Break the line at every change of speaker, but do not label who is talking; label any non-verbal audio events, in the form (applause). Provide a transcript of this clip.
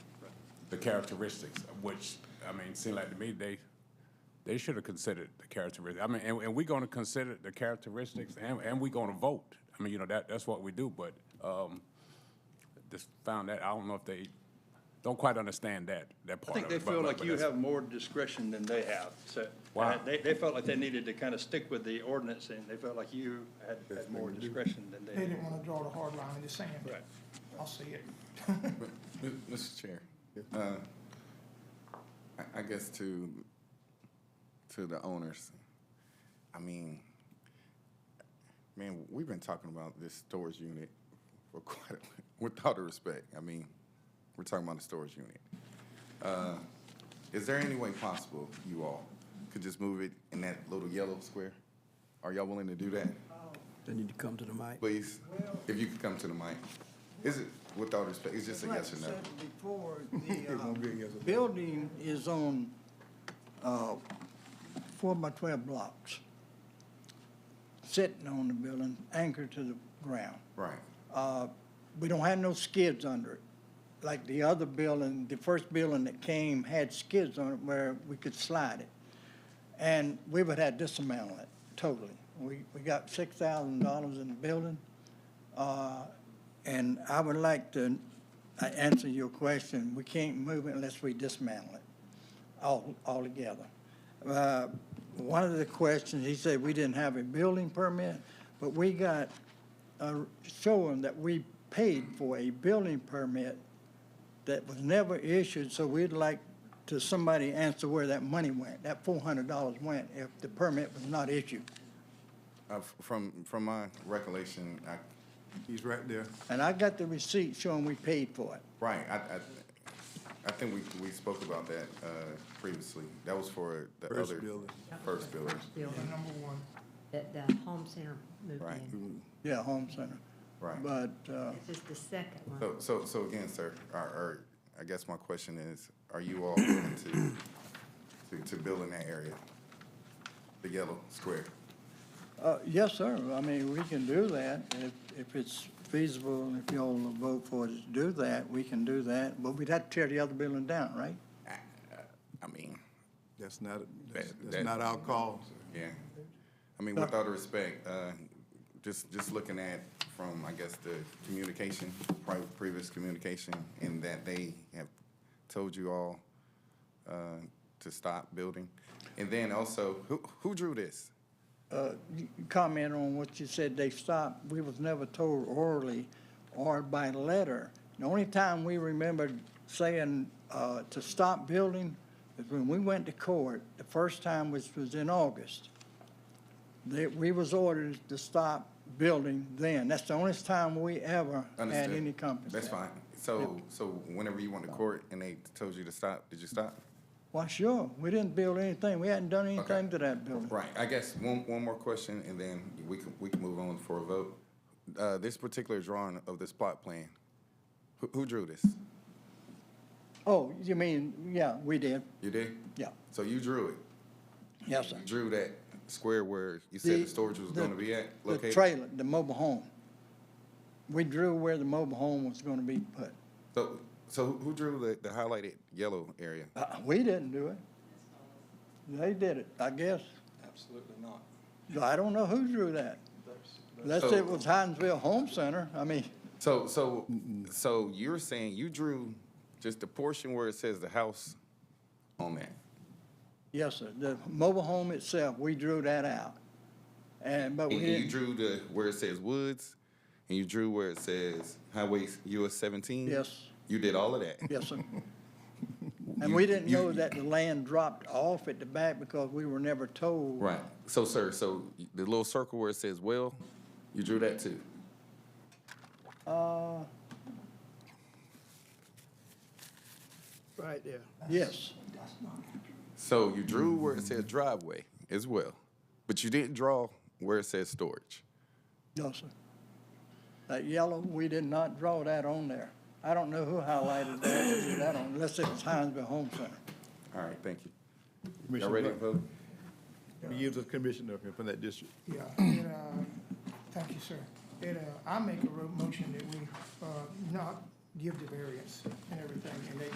the characteristics, which, I mean, seem like to me, they, they should have considered the characteristics. I mean, and, and we're gonna consider the characteristics and, and we're gonna vote. I mean, you know, that, that's what we do, but, um, just found that, I don't know if they, don't quite understand that, that
I
part of
think
it.
they
but-
feel
but-
like
but
you
that's-
have more discretion than they have, so.
Wow.
uh, They, they felt like they needed to kind of stick with the ordinance, and they felt like you had, had more discretion than
They
they did.
didn't want to draw the hard line in the sand.
Right.
I'll see it.
M- Mr. Chair, uh, I- I guess to, to the owners, I mean, man, we've been talking about this storage unit for (laughs) quite, a- with all due respect, I mean, we're talking about the storage unit. Uh, Is there any way possible you all could just move it in that little yellow square? Are y'all willing to do that?
They need to come to the mic.
Please, if you could come to the mic. Is it, with all respect, it's just a yes or no?
Like I said Before,
(laughs)
the, uh, building is on, uh, four by twelve blocks. Sitting on the building, anchored to the ground.
Right.
Uh, we don't have no skids under it. Like the other building, the first building that came had skids on it where we could slide it. And we would have dismantled it totally. We, we got six thousand dollars in the building. Uh, and I would like to uh, answer your question. We can't move it unless we dismantle it all, altogether. Uh, One of the questions, he said we didn't have a building permit, but we got, uh, showing that we paid for a building permit that was never issued, so we'd like to somebody answer where that money went, that four hundred dollars went if the permit was not issued.
Uh, f- From, from my recollection, I,
He's right there.
And I got the receipt showing we paid for it.
right, I, I, I think we, we spoke about that, uh, previously. That was for the other.
First building.
First building,
The
building
number one,
that the home center moved
right,
in.
Yeah, home center.
right.
But, uh,
This is the second one.
So, so, so again, sir, or, or, I guess my question is, are you all willing to, to, to build in that area? The yellow square?
Uh, Yes, sir. I mean, we can do that. If, if it's feasible, and if y'all will vote for us to do that, we can do that. But we'd have to tear the other building down, right?
I mean,
That's not, that's
That- that-
that's not our call.
yeah. I mean, with all due respect, uh, just, just looking at from, I guess, the communication, pri- previous communication, and that they have told you all uh, to stop building. And then also, who, who drew this?
Uh, you- you Comment on what you said, they stopped. We was never told orally or by letter. The only time we remembered saying uh, to stop building is when we went to court, the first time, which was in August. That we was ordered to stop building then. That's the only time we ever had
Understood.
any compensation.
That's fine. So, so whenever you went to court and they told you to stop, did you stop?
Well, sure, we didn't build anything, we hadn't done anything to that building.
Right, I guess one, one more question, and then we can, we can move on for a vote. Uh, This particular drawing of this plot plan, who, who drew this?
Oh, you mean, yeah, we did,
You did?
yeah,
So you drew it?
yes, sir.
You drew that square where you said the storage was
the-
gonna be at,
The
located?
trailer, the mobile home. We drew where the mobile home was gonna be put.
So, so who- who drew the, the highlighted yellow area?
Uh, we didn't do it. They did it, I guess.
Absolutely not.
I don't know who drew that. Unless
So-
it was Hinesville Home Center, I mean,
So, so, so you're saying you drew just the portion where it says the house on that?
yes, sir, the mobile home itself, we drew that out. And, but we
And
didn't.
you drew the, where it says woods, and you drew where it says highway US seventeen?
Yes.
You did all of that?
(laughs) Yes,
(laughs)
sir. And
You-
we didn't
you-
know that the land dropped off at the back because we were never told.
Right, so sir, so the little circle where it says well, you drew that too?
Uh,
Right there.
yes,
So you drew where it says driveway as well, but you didn't draw where it says storage.
no, sir. That yellow, we did not draw that on there. I don't know who highlighted that, or drew that on, unless it was Hinesville Home Center.
All right, thank you. Y'all
Commissioner
ready to
Black,
vote?
We give the commissioner from that district.
yeah. It, uh, Thank you, sir. It, uh, I make a ro- motion that we uh, not give the variance and everything, and they